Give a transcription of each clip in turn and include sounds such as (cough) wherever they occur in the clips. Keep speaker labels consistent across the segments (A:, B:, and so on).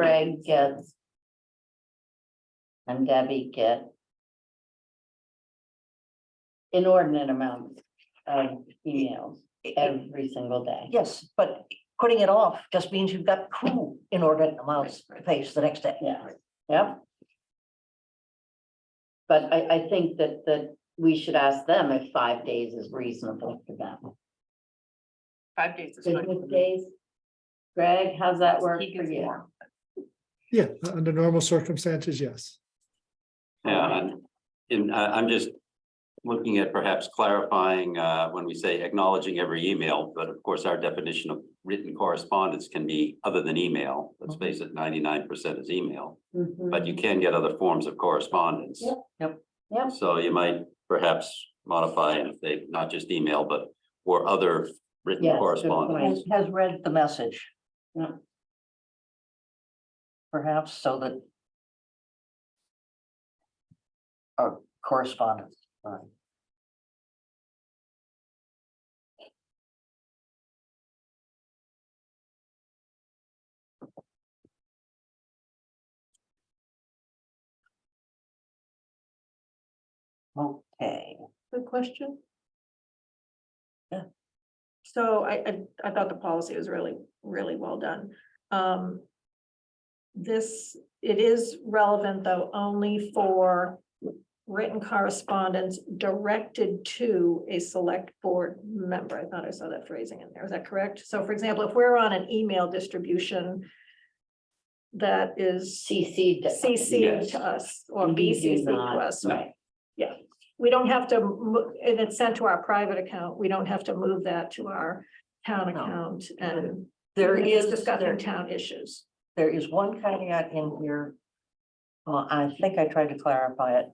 A: Greg gets. And Debbie get. Inordinate amounts of emails every single day.
B: Yes, but putting it off just means you've got two inordinate amounts to face the next day.
A: Yeah, yeah. But I, I think that, that we should ask them if five days is reasonable for them.
C: Five days is fine.
A: Business days? Greg, how's that work
C: He
A: for
C: gets
A: you?
C: more.
D: Yeah, u- under normal circumstances, yes.
E: Yeah, I'm- and I, I'm just looking at perhaps clarifying, uh, when we say acknowledging every email, but of course, our definition of written correspondence can be other than email. Let's face it, ninety-nine percent is email,
A: Mm-hmm.
E: but you can get other forms of correspondence.
A: Yep, yep, yep.
E: So you might perhaps modify and if they, not just email, but or other
A: Yes,
E: written
A: good
E: correspondence.
B: Has, has read the message.
A: Yeah.
B: Perhaps so that. Or correspondence, right. Okay,
C: Good question.
B: Yeah.
C: So I, I, I thought the policy was really, really well done. Um. This, it is relevant though only for written correspondence directed to a select board member. I thought I saw that phrasing in there. Is that correct? So for example, if we're on an email distribution that is
A: CC.
C: CC
E: Yes.
C: to us or
A: We do
C: BCC to
A: not,
C: us,
E: no.
C: right? we don't have to, mo- and it's sent to our private account, we don't have to move that to our town
B: No.
C: account and.
B: there
C: it's
B: is.
C: Discussing
B: there-
C: town issues.
B: There is one caveat in here. Well, I think I tried to clarify it.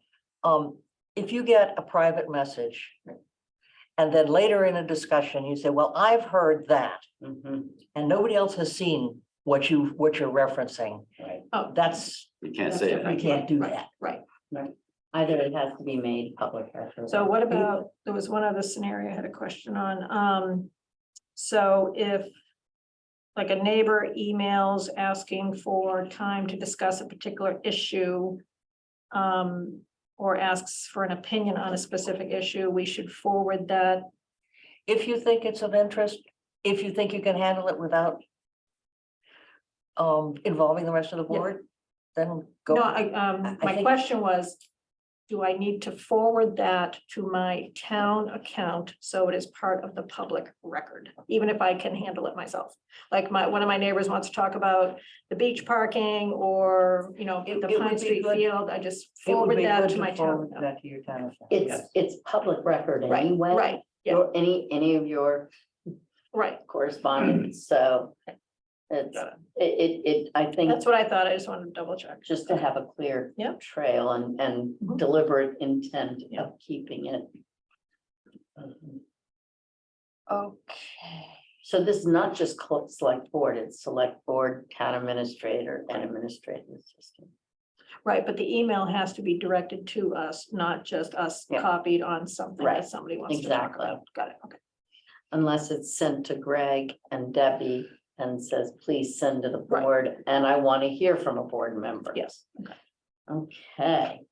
B: Um, if you get a private message. And then later in a discussion, you say, well, I've heard that
A: Mhm,
B: and nobody else has seen what you, what you're referencing.
A: Right,
C: Oh,
B: That's,
E: You can't say
B: we
E: that.
B: can't do
C: Right.
B: that.
C: right.
A: either it has to be made public record.
C: So what about, there was one other scenario I had a question on. Um, so if like a neighbor emails asking for time to discuss a particular issue, um, or asks for an opinion on a specific issue, we should forward that
B: If you think it's of interest, if you think you can handle it without. Um, involving the rest of the
C: Yeah.
B: board, then go.
C: No, I, um,
B: I
C: my
B: think-
C: question was, do I need to forward that to my town account so it is part of the public record? Even if I can handle it myself, like my, one of my neighbors wants to talk about the beach parking or, you know,
B: It-
C: the
B: it would
C: Pine
B: be
C: Street
B: good-
C: field, I just
B: It would
C: forward
B: be
C: that
B: good
C: to my town.
B: forward
C: account.
B: That to your town. account, yes.
A: It's, it's public record
C: Right,
A: anyway.
C: right, yeah.
A: Your, any, any of your
C: right,
A: correspondence, so. It's,
C: Got
A: it, it, it, I think,
C: that's what I thought, I just wanted to double check.
A: just to have a clear.
C: Yeah.
A: Trail and, and
C: Mhm.
A: deliberate intent
C: Yeah.
A: of keeping it.
B: Okay.
A: So this is not just col- select board, it's select board, town administrator, and administrative assistant.
C: Right, but the email has to be directed to us, not just us
A: Yeah.
C: copied on something
A: Right,
C: that somebody wants to talk
A: exactly.
C: about. Got it, okay.
A: Unless it's sent to Greg and Debbie and says, please send to the board, and I want to hear from a board member.
C: Yes.
A: Okay.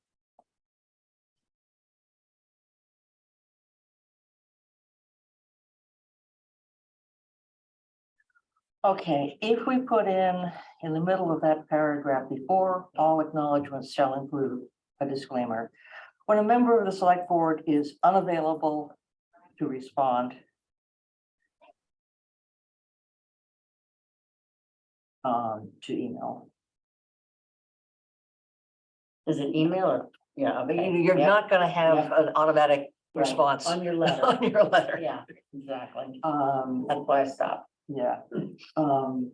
B: Okay, if we put in, in the middle of that paragraph before, all acknowledgements shall include a disclaimer. When a member of the select board is unavailable to respond. Um, to email,
A: Is it email or? Yeah.
B: but
A: okay,
B: you- you're
A: yeah,
B: not gonna have an automatic
A: right,
B: response
A: On your letter.
B: (laughs) on your letter.
A: Yeah, exactly.
B: Um,
A: That's why I stopped.
B: Yeah, um.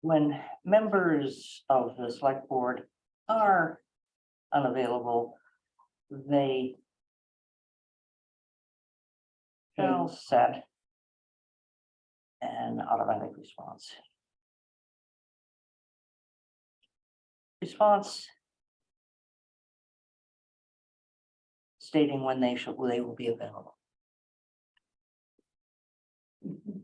B: When members of the select board are unavailable, they. Shall set. An automatic response. Response. Stating when they shall, they will be available.
A: Mhm.